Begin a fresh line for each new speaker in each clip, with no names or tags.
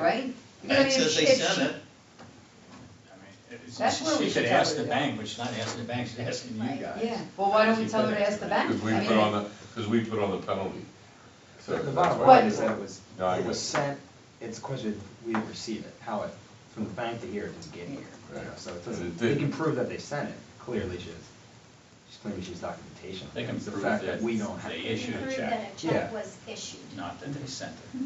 right? I mean,
It says they
it's-
sent it.
I mean, it's-
That's where we
She
should
should ask
tell
the
her to
bank, but she's not asking the bank, she's asking you
Right,
guys.
Yeah, well, why don't we
She
tell her
put
to
it-
ask the bank?
Because we
I
put
mean,
on the, because we put on the penalty. So
The bottom
What?
line is that it was,
No, I
it was
guess.
sent, it's a question, of we didn't receive it, how it, from the bank to here, it didn't get here. you know,
Right.
So it
And
doesn't,
it
they can
didn't.
prove that they sent it, clearly she's, she's claiming she's documentation.
They can
It's the
prove
fact
that
We don't have.
they
We
issued a
prove
check.
that a
Yeah.
check was issued.
Not that they sent it.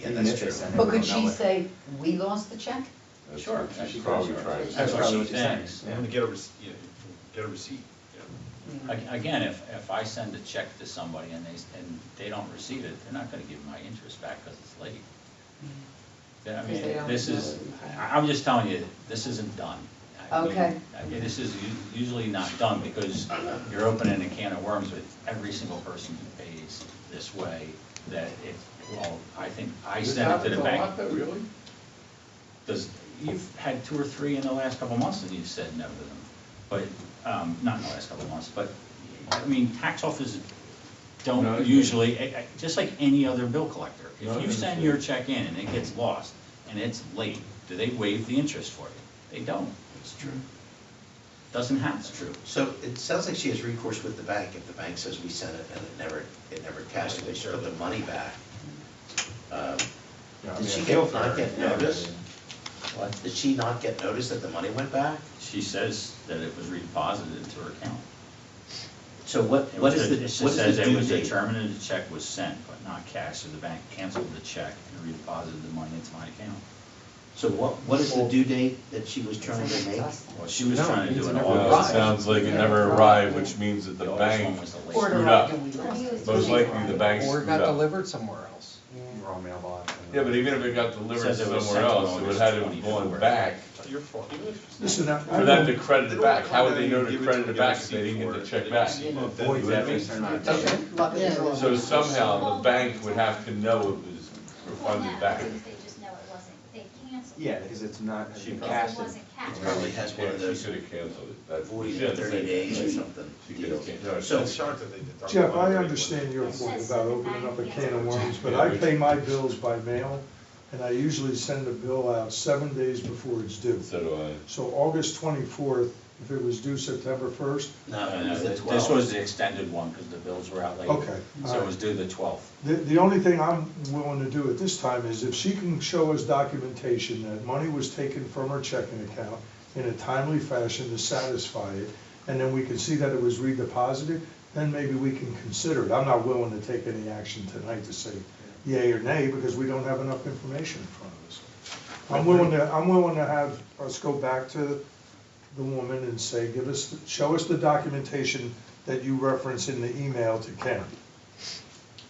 Yeah,
Even
that's
if they
true.
sent it,
But
we
could
don't know
she
it.
say, we lost the check?
That's
Sure,
what she's
that's
probably
sure.
trying to
That's
say.
what
probably
she
what she's saying,
thinks.
yeah.
I'm gonna get a, rece- you know, get a receipt. you know. Ag- Again, if, if I send a check to somebody and they, s- and they don't receive it, they're not gonna give my interest back because it's late. Then, I
Mm-hmm. 'Cause
mean,
they don't
this
know
is,
anything.
I- I'm just telling you, this isn't done. I mean,
Okay.
I mean, this is u- usually not done because you're opening a can of worms with every single person who pays this way that it, well, I think, I
This
sent it to
happens
the
a
bank.
lot, though, Really?
Does, you've had two or three in the last couple of months that you've said no to them, but, um, not in the last couple of months, but, I mean, tax offices
No,
don't
it's-
usually, I- I- just like any other bill collector,
No,
if you
it's-
send your check in and it gets lost and it's late, do they waive the interest for you? They don't.
It's true.
Doesn't happen. It's true.
So it sounds like she has recourse with the bank if the bank says we sent it and it never, it never cashed, it, they should put the money back. Um,
You know, I
Did
mean,
she
I
get,
feel for
not
her,
get
you know, I
notice?
mean,
Did she not get notice that the money went back?
She says that it was redeposited into her account.
So what,
It
what
was
is
a-
the,
It just
what is
says
the
it
due
was
date?
determined that the check was sent, but not cashed, so the bank canceled the check and redeposited the money into my account.
So what, what is the due date that she was trying to make?
Well, she was
No,
trying to
it's
do it
never
all.
Well, it
arrived.
sounds like it never arrived, which means that the bank,
Or do
Screwed
I-
up.
do we lost it?
most likely the bank
Or
screwed
it got
up.
delivered somewhere else.
Wrong mailbox. and-
Yeah, but even if it got delivered
Says it was
somewhere
sent
else,
on
it would have had to
August
be going
24th.
back.
Your fault.
Listen, I.
For them to credit it back, how would they know to credit it back if they didn't get the check back?
Void
Would that be-
records are not-
Luck is wrong.
So somehow the bank would have to know it was
Well,
refunded
no,
back.
because they just know it wasn't, they canceled. it.
Yeah, because it's not, it's
She
been
Because
cashed.
it wasn't
She
cashed.
Probably has one of those
could have canceled it. That's-
void
she had to
uh, thirty
say-
days or something.
She could
deals.
have canceled.
So,
Jeff, I understand your point about opening up a can of worms, but I pay my bills by mail, and I usually send a bill out seven days before it's due.
So do I.
So August twenty-fourth, if it was due September first,
no, it was the
This
12th.
was the extended one, because the bills were out late.
Okay,
So it was due the twelfth.
the, the only thing I'm willing to do at this time is if she can show us documentation that money was taken from her checking account in a timely fashion to satisfy it, and then we can see that it was redeposited, then maybe we can consider it. I'm not willing to take any action tonight to say yay or nay, because we don't have enough information in front of us. I'm willing to, I'm willing to have us go back to the woman and say, give us, show us the documentation that you reference in the email to Ken.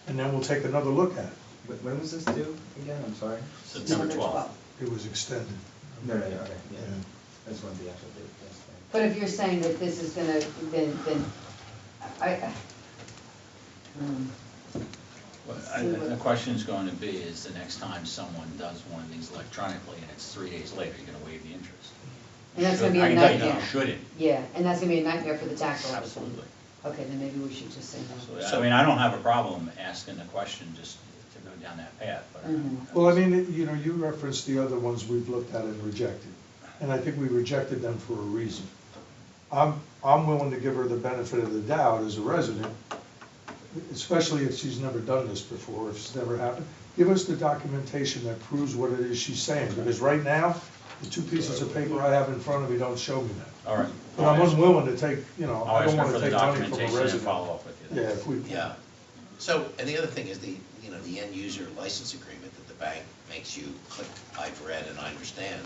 And then we'll take another look at it.
But When was this due again? I'm sorry.
September twelfth.
It was extended.
No, no, no, okay, yeah.
Yeah.
I just wanted the actual date, that's fine.
But if you're saying that this is gonna, then, then, I, I- hmm.
The question's going to be, is the next time someone does one of these electronically and it's three days later, you're gonna waive the interest?
and that's gonna be
I
a
can tell you,
nightmare.
you shouldn't.
Yeah, and that's gonna be a nightmare for the tax office.
Absolutely.
Okay, then maybe we should just say no.
So, I mean, I don't have a problem asking the question just to go down that path, but. I'm-
Well, I mean, you know, you referenced the other ones we've looked at and rejected, and I think we rejected them for a reason. I'm, I'm willing to give her the benefit of the doubt as a resident, especially if she's never done this before, if it's never happened. Give us the documentation that proves what it is she's saying, because right now, the two pieces of paper I have in front of me don't show me that.
All right.
But I'm unwilling to take, you know,
I'll
I
ask
don't
her
want
for the
to take money from a
documentation and
resident.
follow up with you.
Yeah, if we.
Yeah. So, and the other thing is the, you know, the end user license agreement that the bank makes you click, I've read and I understand.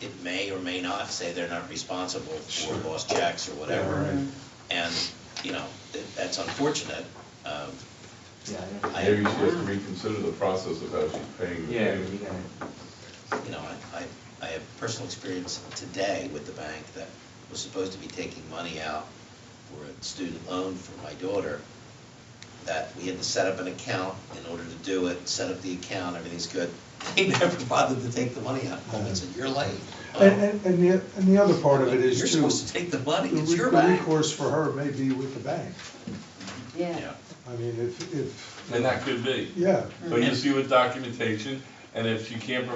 It may or may not say they're not responsible for lost checks or
Yeah,
whatever.
right.
And, you know, th- that's unfortunate. Um,
Yeah, I know.
I,
Maybe she
you
has to reconsider the process of how she's paying. the
Yeah,
payment.
you got it.
know, I, I- I have personal experience today with the bank that was supposed to be taking money out for a student loan for my daughter. that we had to set up an account in order to do it, set up the account, everything's good. They never bothered to take the money out. Oh, it's in your life.
And, and, and the, and the other part of it is too.
You're supposed to take the money,
The
it's
re-
your
the
bank.
recourse for her may be with the bank.
Yeah.
Yeah.
I mean, if, if,
And that could be.
yeah.
But you see with documentation, and if she can't provide